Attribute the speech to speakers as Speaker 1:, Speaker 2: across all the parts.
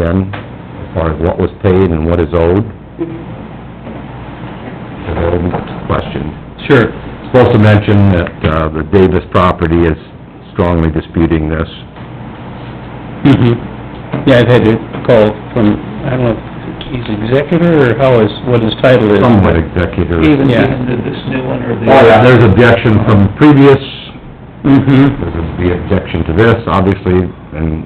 Speaker 1: on, as far as what was paid and what is owed? The whole question.
Speaker 2: Sure.
Speaker 1: Supposed to mention that, uh, the Davis property is strongly disputing this.
Speaker 2: Mm-hmm. Yeah, I've had to call from, I don't know, if he's executor or how is, what his title is.
Speaker 1: Somewhat executive.
Speaker 3: Even,
Speaker 2: Yeah.
Speaker 3: even to this new one or the...
Speaker 1: Oh, yeah, there's objection from previous,
Speaker 2: Mm-hmm.
Speaker 1: There would be objection to this, obviously, and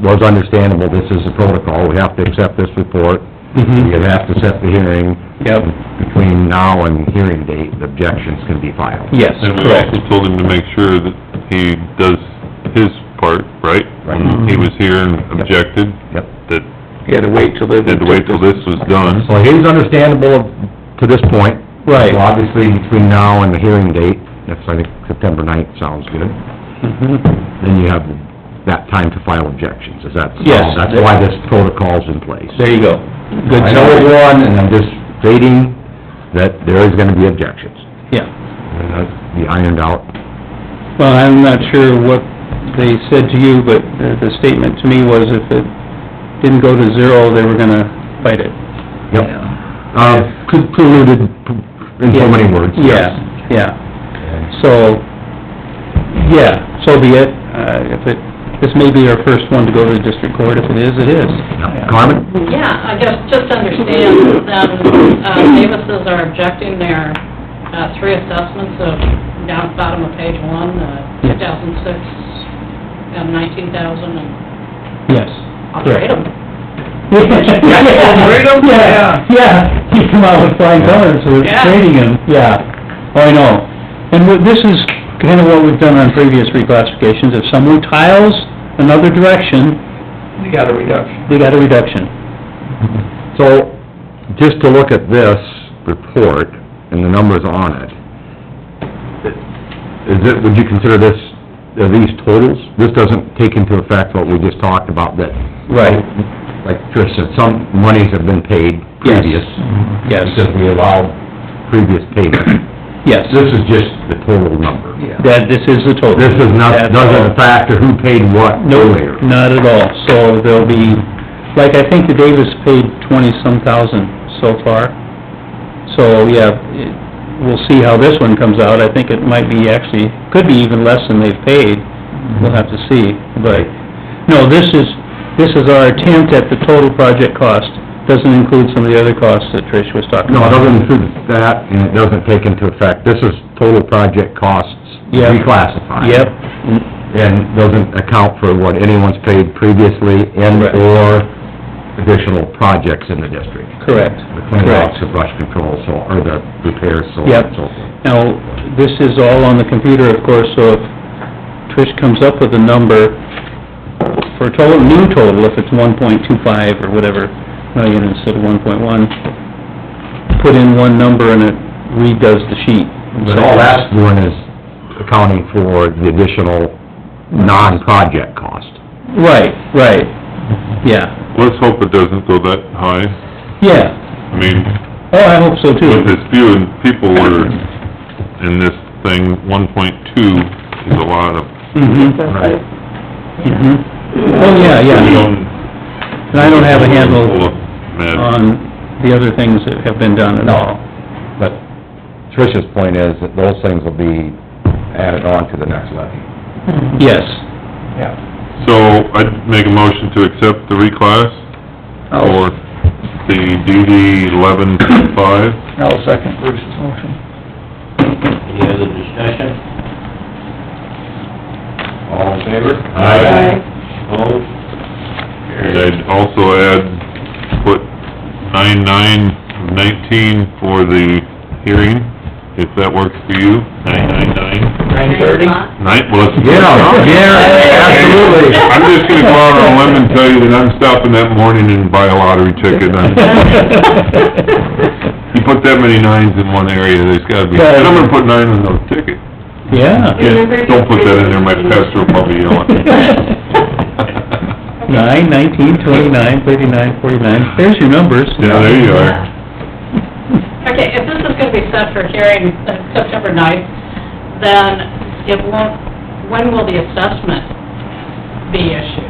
Speaker 1: it was understandable, this is the protocol, we have to accept this report,
Speaker 2: Mhm.
Speaker 1: you have to set the hearing.
Speaker 2: Yep.
Speaker 1: Between now and hearing date, the objections can be filed.
Speaker 2: Yes,
Speaker 4: And we
Speaker 2: correct.
Speaker 4: also told him to make sure that he does his part, right? When he was here and objected,
Speaker 1: Yep.
Speaker 4: that
Speaker 3: You had to wait till they...
Speaker 4: he had to wait till this was done.
Speaker 1: So he's understandable to this point.
Speaker 2: Right.
Speaker 1: So obviously, between now and the hearing date, that's, I think, September ninth sounds good,
Speaker 2: Mhm.
Speaker 1: then you have that time to file objections, is that? so?
Speaker 2: Yes.
Speaker 1: That's why this protocol's in place.
Speaker 2: There you go. Good
Speaker 1: I know it
Speaker 2: summary.
Speaker 1: won, and I'm just stating that there is gonna be objections.
Speaker 2: Yeah.
Speaker 1: And that's be ironed out.
Speaker 2: Well, I'm not sure what they said to you, but the, the statement to me was if it didn't go to zero, they were gonna fight it.
Speaker 1: Yep. Uh, pre- preluded in so many words. yes.
Speaker 2: Yeah, yeah. So, yeah, so be it. Uh, if it, this may be our first one to go to the district court. If it is, it is.
Speaker 1: Carmen?
Speaker 5: Yeah, I guess just understand that, uh, Davises are objecting their, uh, three assessments of, down at the bottom of page one, uh,
Speaker 2: Yes.
Speaker 5: two thousand six, and nineteen thousand, and
Speaker 2: Yes.
Speaker 5: I'll grade them.
Speaker 3: Grade 'em?
Speaker 2: Yeah, yeah, he come out with flying colors, so it's
Speaker 5: Yeah.
Speaker 2: grading him, yeah. Oh, I know. And what- this is kinda what we've done on previous reclassifications. If someone tiles another direction,
Speaker 3: You got a reduction.
Speaker 2: they got a reduction.
Speaker 1: So, just to look at this report and the numbers on it, is it, would you consider this, are these totals? This doesn't take into effect what we just talked about, that...
Speaker 2: Right.
Speaker 1: Like Trish said, some monies have been paid
Speaker 2: Yes.
Speaker 1: previous.
Speaker 2: Yes,
Speaker 1: Because we allowed previous payment.
Speaker 2: yes.
Speaker 1: This is just the total number.
Speaker 2: That, this is the total.
Speaker 1: This is not,
Speaker 2: That's all.
Speaker 1: doesn't factor who paid what
Speaker 2: No,
Speaker 1: earlier.
Speaker 2: not at all. So there'll be, like, I think the Davis paid twenty-some thousand so far. So, yeah, it- we'll see how this one comes out. I think it might be actually, could be even less than they've paid. We'll have to see, but, no, this is, this is our attempt at the total project cost. Doesn't include some of the other costs that Trish was talking
Speaker 1: No, it
Speaker 2: about.
Speaker 1: doesn't include that, and it doesn't take into effect, this is total project costs
Speaker 2: Yep.
Speaker 1: reclassified.
Speaker 2: Yep,
Speaker 1: And doesn't account for what anyone's paid previously
Speaker 2: Correct.
Speaker 1: and/or additional projects in the district.
Speaker 2: correct.
Speaker 1: The cleanouts,
Speaker 2: Correct.
Speaker 1: the brush control, so, or the repairs, so on
Speaker 2: Yep.
Speaker 1: and so forth.
Speaker 2: Now, this is all on the computer, of course, so if Trish comes up with a number for a total, new total, if it's one point two five or whatever, million instead of one point one, put in one number and it redoes the sheet.
Speaker 1: But all that's doing is accounting for the additional non-project cost.
Speaker 2: Right, right, yeah,
Speaker 4: Let's hope it doesn't go that high.
Speaker 2: yeah.
Speaker 4: I mean,
Speaker 2: Oh, I hope so
Speaker 4: with
Speaker 2: too.
Speaker 4: as few people were in this thing, one point two is a lot of...
Speaker 2: Mm-hmm,
Speaker 1: Right.
Speaker 2: mm-hmm. Oh, yeah, yeah. And I don't have a handle
Speaker 4: Man,
Speaker 2: on the other things that have been done at all.
Speaker 1: But Trish's point is that those things will be added on to the next levy.
Speaker 2: Yes,
Speaker 4: so I'd make a motion to accept the reclass
Speaker 2: Oh.
Speaker 4: for the DD eleven five.
Speaker 3: I'll second Bruce's motion.
Speaker 6: Any other discussion? All in favor?
Speaker 4: Aye.
Speaker 6: Opposed?
Speaker 4: And
Speaker 6: Carried.
Speaker 4: I'd also add, put nine nine nineteen for the hearing, if that works for you, nine nine nine.
Speaker 3: Nine thirty?
Speaker 4: Nine, well, it's...
Speaker 1: Yeah, yeah, absolutely.
Speaker 4: I'm just gonna go out on a limb and tell you that I'm stopping that morning and buy a lottery ticket. I'm- You put that many nines in one area, there's gotta be, and I'm gonna put nine in those tickets.
Speaker 2: yeah.
Speaker 4: Yeah, Don't put that in there, my pastor will be yelling.
Speaker 2: Nine, nineteen, twenty-nine, thirty-nine, forty-nine, there's your numbers.
Speaker 4: Yeah, there you are.
Speaker 5: Okay, if this is gonna be set for hearing uh, September ninth, then it won't, when will the assessment be issued?